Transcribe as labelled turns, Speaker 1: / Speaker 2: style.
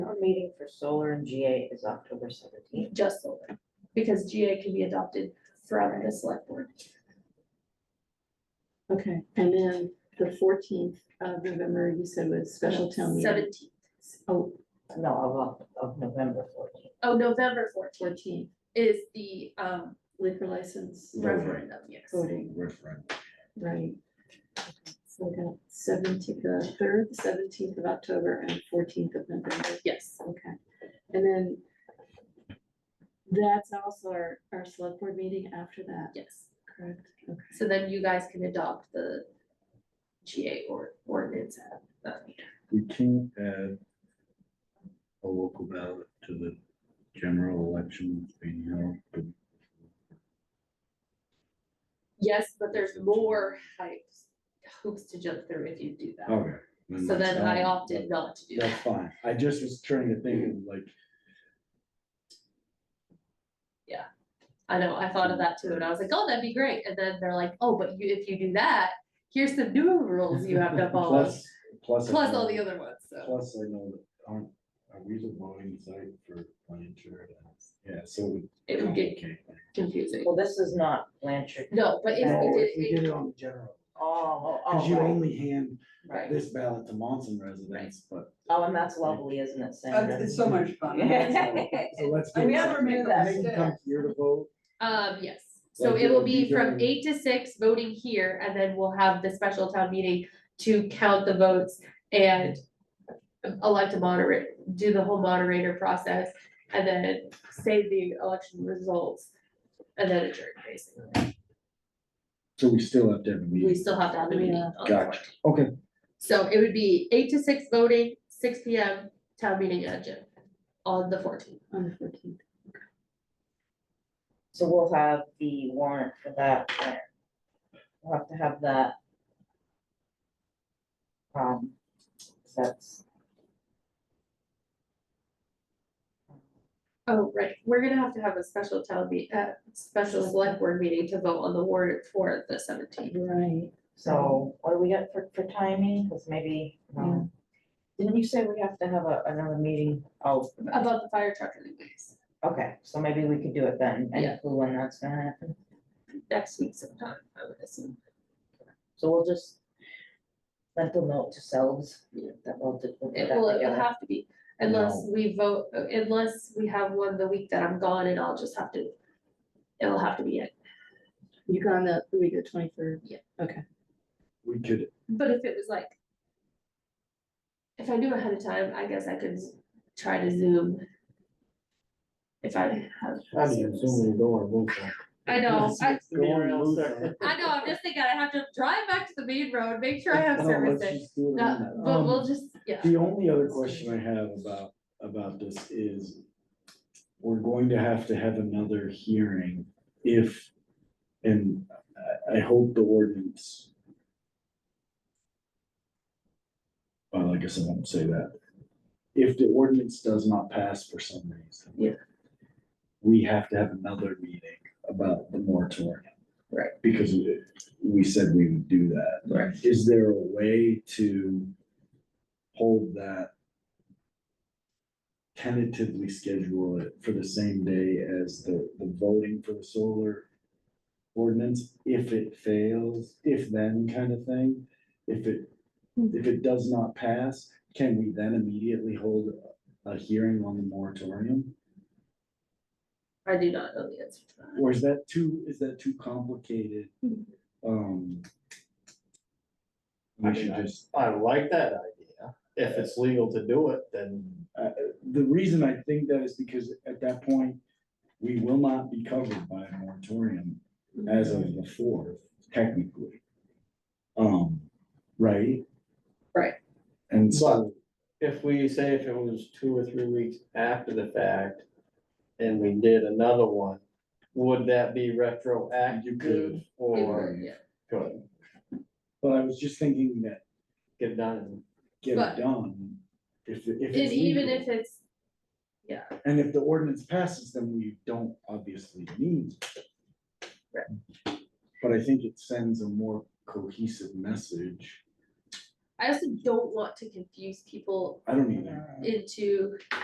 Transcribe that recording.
Speaker 1: meeting for solar and GA is October seventeenth.
Speaker 2: just solar, because GA can be adopted from the select board.
Speaker 3: Okay, and then the fourteenth of November, you said was special town meeting.
Speaker 2: Seventeenth,
Speaker 3: Oh,
Speaker 1: No, of, of November fourteenth.
Speaker 2: oh, November fourteenth
Speaker 3: fourteenth,
Speaker 2: is the um
Speaker 3: liquor license
Speaker 2: referendum, yes.
Speaker 3: voting,
Speaker 4: Referendum.
Speaker 3: right? So we got seventeenth, the third, seventeenth of October and fourteenth of November,
Speaker 2: Yes,
Speaker 3: okay. And then that's also our, our select board meeting after that,
Speaker 2: yes.
Speaker 3: correct? Okay.
Speaker 2: So then you guys can adopt the GA or ordinance at that meeting.
Speaker 4: We can add a local ballot to the general election being held, but
Speaker 2: Yes, but there's more hoops, hoops to jump through if you do that.
Speaker 4: okay.
Speaker 2: So
Speaker 4: Oh, that's
Speaker 2: then I
Speaker 4: fine.
Speaker 2: opted not to do that.
Speaker 4: That's fine. I just was trying to think of like,
Speaker 2: I know, I thought of that too, and I was like, oh, that'd be great, and then they're like, oh, but you, if you do that, here's some new rules you have to follow,
Speaker 4: plus, plus. I
Speaker 2: plus all
Speaker 4: know-
Speaker 2: the other ones, so.
Speaker 4: Plus, I know that aren't, are we the voting site for Blanchard? Yeah, so.
Speaker 2: It would get confusing,
Speaker 1: Well, this is not Blanchard.
Speaker 2: no, but if
Speaker 1: No,
Speaker 4: No,
Speaker 2: we
Speaker 4: if we
Speaker 2: did, it-
Speaker 4: did it on the general,
Speaker 1: Oh, oh,
Speaker 4: cause
Speaker 1: oh,
Speaker 4: you
Speaker 1: right,
Speaker 4: only hand
Speaker 1: right.
Speaker 4: this ballot to Monson residents, but.
Speaker 1: Oh, and that's lovely, isn't it,
Speaker 5: Uh,
Speaker 1: Sandra?
Speaker 5: It's so much fun.
Speaker 4: So let's.
Speaker 5: I
Speaker 4: do-
Speaker 5: never knew that.
Speaker 4: They can come here to vote.
Speaker 2: um, yes, so
Speaker 4: Like,
Speaker 2: it
Speaker 4: it
Speaker 2: will
Speaker 4: would
Speaker 2: be
Speaker 4: be
Speaker 2: from
Speaker 4: during-
Speaker 2: eight to six, voting here, and then we'll have the special town meeting to count the votes and elect a moderator, do the whole moderator process, and then save the election results, and then adjourn, basically.
Speaker 4: So we still have to have a
Speaker 2: We
Speaker 4: meeting.
Speaker 2: still have to have a meeting on the
Speaker 4: Gotcha.
Speaker 2: 14th.
Speaker 4: Okay,
Speaker 2: So it would be eight to six voting, six P M, town meeting agenda on the fourteenth.
Speaker 3: On the fourteenth,
Speaker 1: So we'll have the warrant for that. when? We'll have to have that. Um, that's.
Speaker 2: Oh, right, we're gonna have to have a special town meet, uh, special select board meeting to vote on the warrant for the seventeenth.
Speaker 3: right.
Speaker 1: So what do we got for, for timing? Cause maybe, um, didn't you say we have to have a, another meeting? Oh,
Speaker 2: About the fire truck anyways,
Speaker 1: okay, so maybe we could do it then.
Speaker 2: Yeah.
Speaker 1: Any clue when that's gonna happen?
Speaker 2: next week sometime, I would assume.
Speaker 1: So we'll just mental note to selves
Speaker 2: Yeah.
Speaker 1: that we'll, do- we'll put
Speaker 2: It
Speaker 1: that
Speaker 2: will, it'll
Speaker 1: together.
Speaker 2: have to be, unless we vote, unless we have one the week that I'm gone and I'll just have to, it'll have to be it.
Speaker 3: You got on the the week of the twenty-third?
Speaker 4: we could,
Speaker 2: But if it was like. If I knew ahead of time, I guess I could z- try to zoom. If I have.
Speaker 4: I mean, so many dollars.
Speaker 2: I know, I,
Speaker 4: Go on, lose that.
Speaker 2: I know, I'm just thinking I have to drive back to the main road, make sure I have
Speaker 4: No, let's
Speaker 2: services.
Speaker 4: just do it on
Speaker 2: No,
Speaker 4: that.
Speaker 2: but
Speaker 4: Um,
Speaker 2: we'll just, yeah,
Speaker 4: The only other question I have about, about this is, we're going to have to have another hearing if, and I, I hope the ordinance. Well, I guess I won't say that. If the ordinance does not pass for some reason.
Speaker 2: Yeah.
Speaker 4: We have to have another meeting about the moratorium.
Speaker 2: Right.
Speaker 4: Because we, we said we would do that.
Speaker 2: Right.
Speaker 4: Is there a way to hold that? Tentatively schedule it for the same day as the, the voting for the solar ordinance, if it fails, if then kind of thing? If it, if it does not pass, can we then immediately hold a hearing on the moratorium?
Speaker 2: I do not know the answer to that.
Speaker 4: Or is that too, is that too complicated? Um.
Speaker 6: I
Speaker 4: we should
Speaker 6: mean, I-
Speaker 4: just-
Speaker 6: I like that idea. If it's legal to do it, then
Speaker 4: the reason I think that is because at that point, we will not be covered by a moratorium as of the fourth, technically. Um, right?
Speaker 2: Right.
Speaker 4: And
Speaker 6: but
Speaker 4: so,
Speaker 6: if we say if it was two or three weeks after the fact and we did another one, would that be
Speaker 4: You
Speaker 6: retroactive
Speaker 4: could.
Speaker 2: It
Speaker 6: or
Speaker 2: would, yeah.
Speaker 6: could
Speaker 4: but I was just thinking that
Speaker 6: get done?
Speaker 4: get
Speaker 2: But-
Speaker 4: it done, if, it- if.
Speaker 2: And
Speaker 4: it's
Speaker 2: even
Speaker 4: legal.
Speaker 2: if it's, yeah,
Speaker 4: And if the ordinance passes, then we don't obviously need. it.
Speaker 2: Right.
Speaker 4: But I think it sends a more cohesive message.
Speaker 2: I also don't want to confuse people
Speaker 4: I don't even.
Speaker 2: into